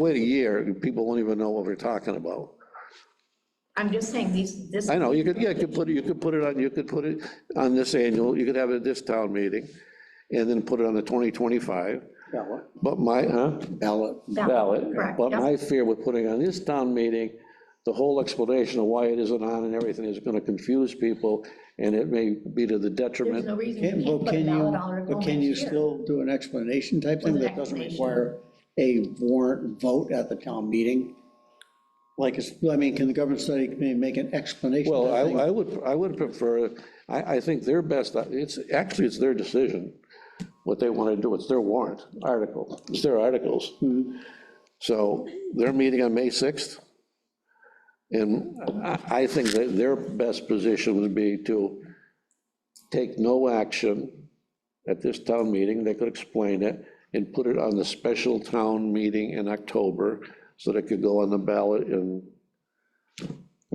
Wait a year, people won't even know what we're talking about. I'm just saying, these, this, I know, you could, yeah, you could put it, you could put it on, you could put it on this annual, you could have it at this town meeting, and then put it on the 2025, Ballot, but my, huh? ballot. ballot. Correct, But yep. my fear with putting on this town meeting, the whole explanation of why it isn't on and everything is gonna confuse people, and it may be to the there's detriment. no reason Can- you Well, can't put a can ballot you, article but can next you year. still do an explanation type thing With an that doesn't explanation. require a warrant vote at the town meeting? Like, it's- I mean, can the government study committee make an explanation? Well, type thing? I, I would, I would prefer, I, I think their best, it's, actually, it's their decision, what they wanna do, it's their warrant article, it's their articles. So, they're meeting on May 6th, and I, I think that their best position would be to take no action at this town meeting, they could explain it, and put it on the special town meeting in October, so that it could go on the ballot in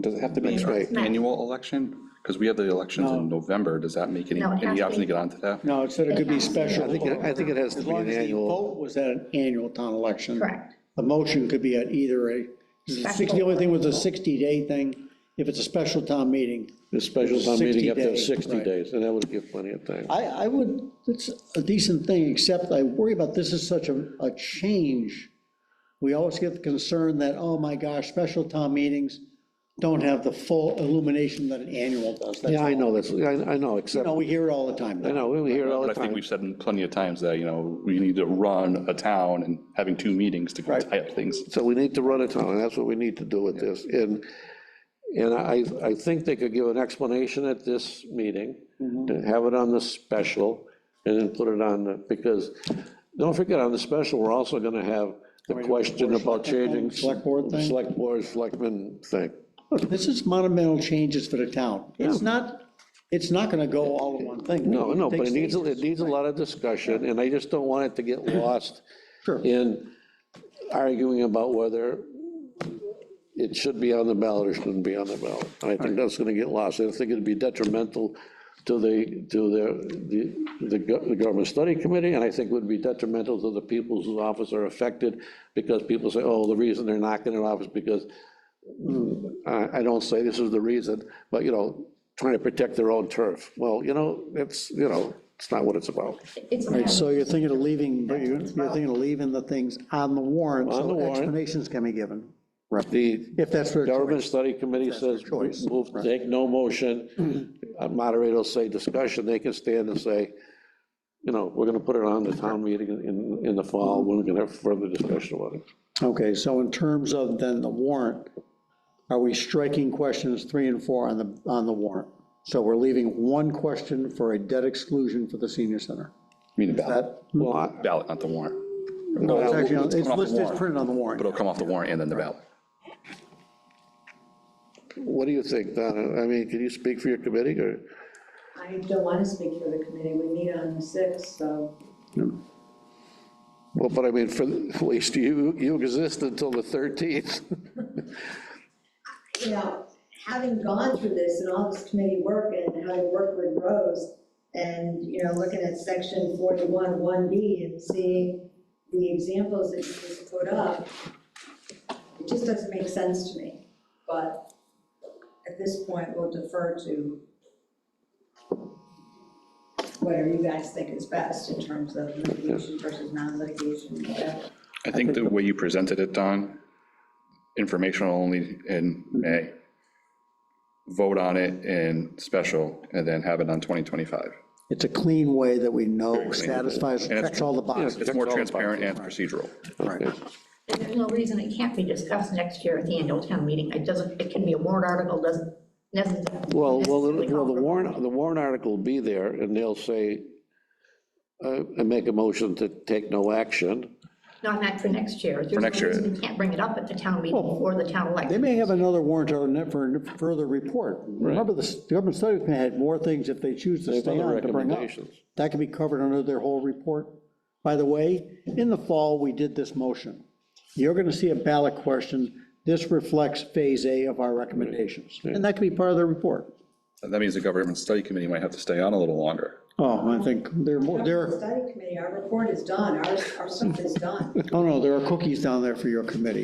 Does it have to be That's right. an annual election? Because we have the elections in November. Does that make any, No, it has any to option be- to get onto that? No, it said it could be It has to be special. I think, it- I think it has to As be long an as the annual, vote was at an annual town election. Correct. The motion could be at either a, the only thing was a 60-day thing. If it's a special town meeting, the special town meeting up to 60 days, 60 right. days, and that would give plenty of time. I, I would, it's a decent thing, except I worry about this is such a, a change. We always get the concern that, oh my gosh, special town meetings don't have the full illumination that an annual does. That's Yeah, I all. know, that's, I, I know, You except, know, we hear it all the time. I know, we hear it all But I the think time. we've said plenty of times that, you know, we need to run a town and having two meetings to go Right. tie up things. So we need to run a town, and that's what we need to do with this. And, and I, I think they could give an explanation at this meeting, and have it on the special, and then put it on, the because, don't forget, on the special, we're also gonna have the question about changing. Select board thing? Select board, selectmen thing. Look, this is monumental changes for the town. It's not, it's not gonna go all in one thing. No, no, but takes it needs, stages. it needs a lot of discussion, and I just don't want it to get lost Sure. in arguing about whether it should be on the ballot or shouldn't be on the ballot. And I think that's gonna get lost, I think it'd be detrimental to the, to the, the, the go- the government study committee, and I think would be detrimental to the people whose office are affected, because people say, oh, the reason they're not getting an office, because mm, I, I don't say this is the reason, but, you know, trying to protect their own turf. Well, you know, it's, you know, it's not what it's about. It's Right, not- so you're thinking of leaving, but you're, you're thinking of leaving the things on the warrant, On the so warrant. explanations can be given, The if that's what. government study committee says, their choice, move, take no motion. A Moderator will say discussion, they can stand and say, you know, we're gonna put it on the town meeting in, in the fall, when we can have further discussion about it. Okay, so in terms of then the warrant, are we striking questions three and four on the, on the warrant? So we're leaving one question for a debt exclusion for the senior center. Meaning ballot, That, Well, I- ballot, not the warrant. no, it's actually, on- it's coming off the listed, it's warrant. printed on the warrant. But it'll come off the warrant and then the ballot. what do you think, Donna? I mean, can you speak for your committee, or? I don't want to speak for the committee, we meet on the 6th, so Well, but I mean, for, at least you, you exist until the 13th. you know, having gone through this and all this committee work and having worked with Rose and, you know, looking at section 41, 1B and seeing the examples that you just put up, it just doesn't make sense to me. But at this point, we'll defer to whatever you guys think is best in terms of litigation versus non-litigation, whatever. I think the way you presented it, Don, informational only in May. Vote on it in special and then have it on 2025. It's a clean way that we know clean. satisfies, And it's- checks all the boxes. It's more transparent and procedural. Right. There's no reason it can't be discussed next year at the annual town meeting. It doesn't, it can be a warrant article, doesn't necessarily. Well, well, the- well, the necessarily- warrant, the warrant article will be there, and they'll say, uh, and make a motion to take no action. Not that for next year. For next year. You can't bring it up at the town meeting or the town They election. may have another warrant or ne- for further report. Remember, the s- the government study committee had more things if they choose to have stay other on to bring up. recommendations. That can be covered under their whole report. By the way, in the fall, we did this motion. You're going to see a ballot question. This reflects phase A of our recommendations, and that can be part of the report. That means the government study committee might have to stay on a little longer. Oh, I think there are more, there Our are, Study committee, our report is done, our, our stuff is done. oh no, there are cookies down there for your committee.